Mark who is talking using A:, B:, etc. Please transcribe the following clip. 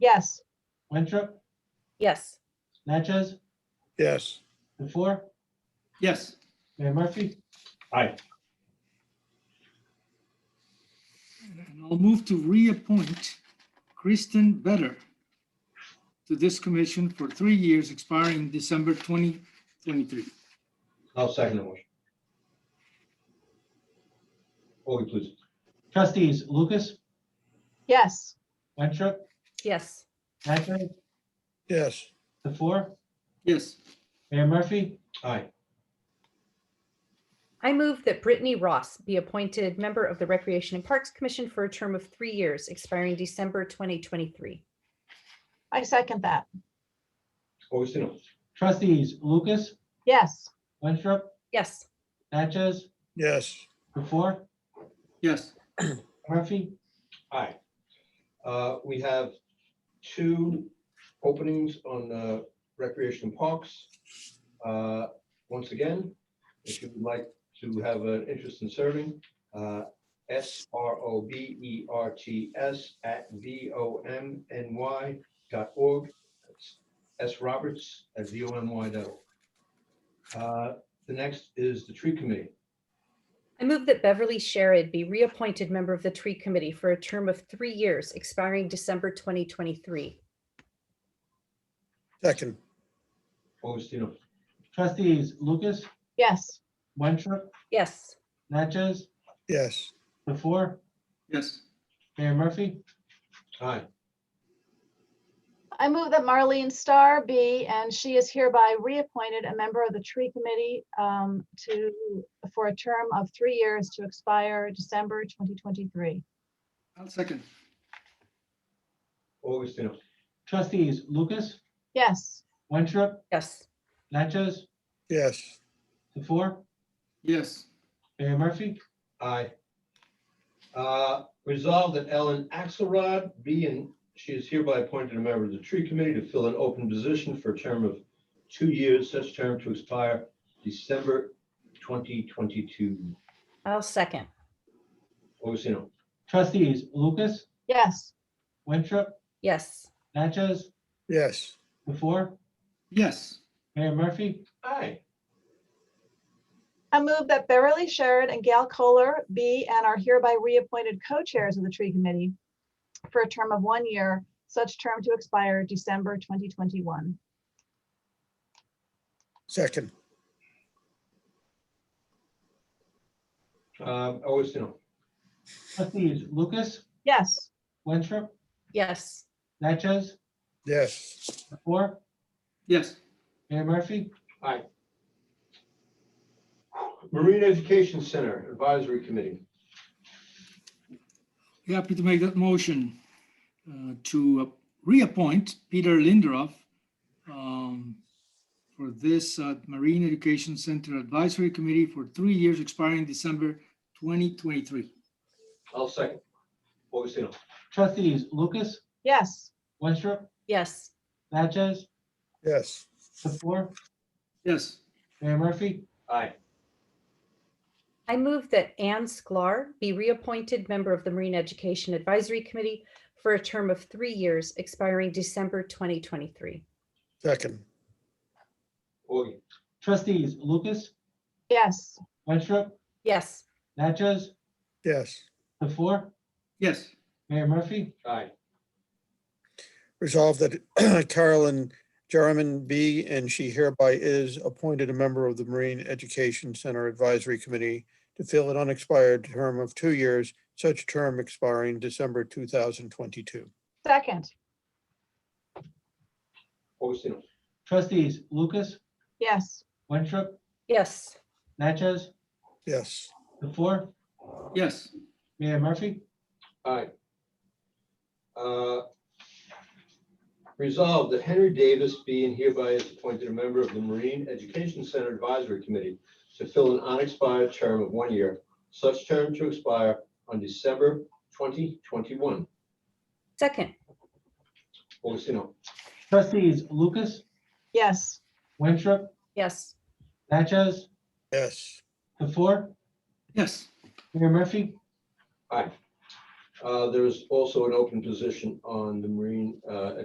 A: Yes.
B: Winthrop,
C: Yes.
B: Natchez,
D: yes.
B: the four,
E: Yes.
B: Mayor Murphy?
F: Aye.
E: And I'll move to reappoint Kristen Better to this commission for three years expiring December 2023.
F: I'll second the motion. Vote please.
B: Trustees Lucas,
A: Yes.
B: Winthrop,
C: Yes.
B: Natchez,
D: Yes,
B: the four,
E: Yes.
B: Mayor Murphy?
F: Aye.
C: I move that Brittany Ross be appointed member of the Recreation and Parks Commission for a term of three years expiring December 2023.
A: I second that.
F: Augustino?
B: Trustees Lucas,
A: Yes.
B: Winthrop,
C: Yes.
B: Natchez,
D: yes,
B: the four,
E: Yes.
B: Murphy?
F: Aye. Uh, We have two openings on uh, Recreation and Parks. Uh, Once again, if you would like to have an interest in serving, uh, S R O B E R T S at V O M N Y dot org. That's S Roberts at V O M Y dot org. Uh, The next is the Tree Committee.
C: I move that Beverly Sherrod be reappointed member of the Tree Committee for a term of three years expiring December 2023.
D: second,
F: Augustino?
B: Trustees Lucas,
A: Yes.
B: Winthrop,
C: Yes.
B: Natchez,
D: yes,
B: the four,
E: Yes.
B: Mayor Murphy?
F: Aye.
A: I move that Marlene Starr be, and she is hereby reappointed a member of the Tree Committee um, to, for a term of three years to expire December 2023.
E: I'll second.
F: Augustino?
B: Trustees Lucas,
A: Yes.
B: Winthrop,
C: Yes.
B: Natchez,
D: yes,
B: the four,
E: Yes.
B: Mayor Murphy?
F: Aye. Uh, Resolved that Ellen Axelrod be and she is hereby appointed a member of the tree committee to fill an open position for a term of two years, such term to expire December 2022.
C: I'll second.
F: Augustino.
B: Trustees Lucas,
A: Yes.
B: Winthrop,
C: Yes.
B: Natchez,
D: yes,
B: the four,
E: Yes.
B: Mayor Murphy?
F: Aye.
A: I move that Beverly Sherrod and Gail Kohler be and are hereby reappointed co-chairs of the Tree Committee for a term of one year, such term to expire December 2021.
D: second,
F: Um, Augustino.
B: Trustees Lucas,
A: Yes.
B: Winthrop,
C: Yes.
B: Natchez,
D: yes,
B: the four,
E: Yes.
B: Mayor Murphy?
F: Marine Education Center Advisory Committee.
E: Happy to make that motion uh, to uh, reappoint Peter Lindroff um, for this uh, Marine Education Center Advisory Committee for three years expiring December 2023.
F: I'll second. Augustino.
B: Trustees Lucas,
A: Yes.
B: Winthrop,
C: Yes.
B: Natchez,
D: yes,
B: the four,
E: Yes.
B: Mayor Murphy?
F: Aye.
C: I move that Anne Sklar be reappointed member of the Marine Education Advisory Committee for a term of three years expiring December 2023.
D: second,
F: Augie.
B: Trustees Lucas,
A: Yes.
B: Winthrop,
C: Yes.
B: Natchez,
D: yes.
B: the four,
E: Yes.
B: Mayor Murphy?
F: Aye.
D: Resolved that Carolyn Jarman be and she hereby is appointed a member of the Marine Education Center Advisory Committee to fill an unexpired term of two years, such term expiring December 2022.
A: Second.
F: Augustino.
B: Trustees Lucas,
A: Yes.
B: Winthrop,
C: Yes.
B: Natchez,
D: Yes,
B: the four,
E: Yes.
B: Mayor Murphy?
F: Aye. Uh, Resolved that Henry Davis be and hereby is appointed a member of the Marine Education Center Advisory Committee to fill an unexpired term of one year, such term to expire on December 2021.
C: Second.
F: Augustino.
B: Trustees Lucas,
A: Yes.
B: Winthrop,
C: Yes.
B: Natchez,
D: yes,
B: the four,
E: Yes.
B: Mayor Murphy?
F: Aye. Uh, There's also an open position on the Marine uh,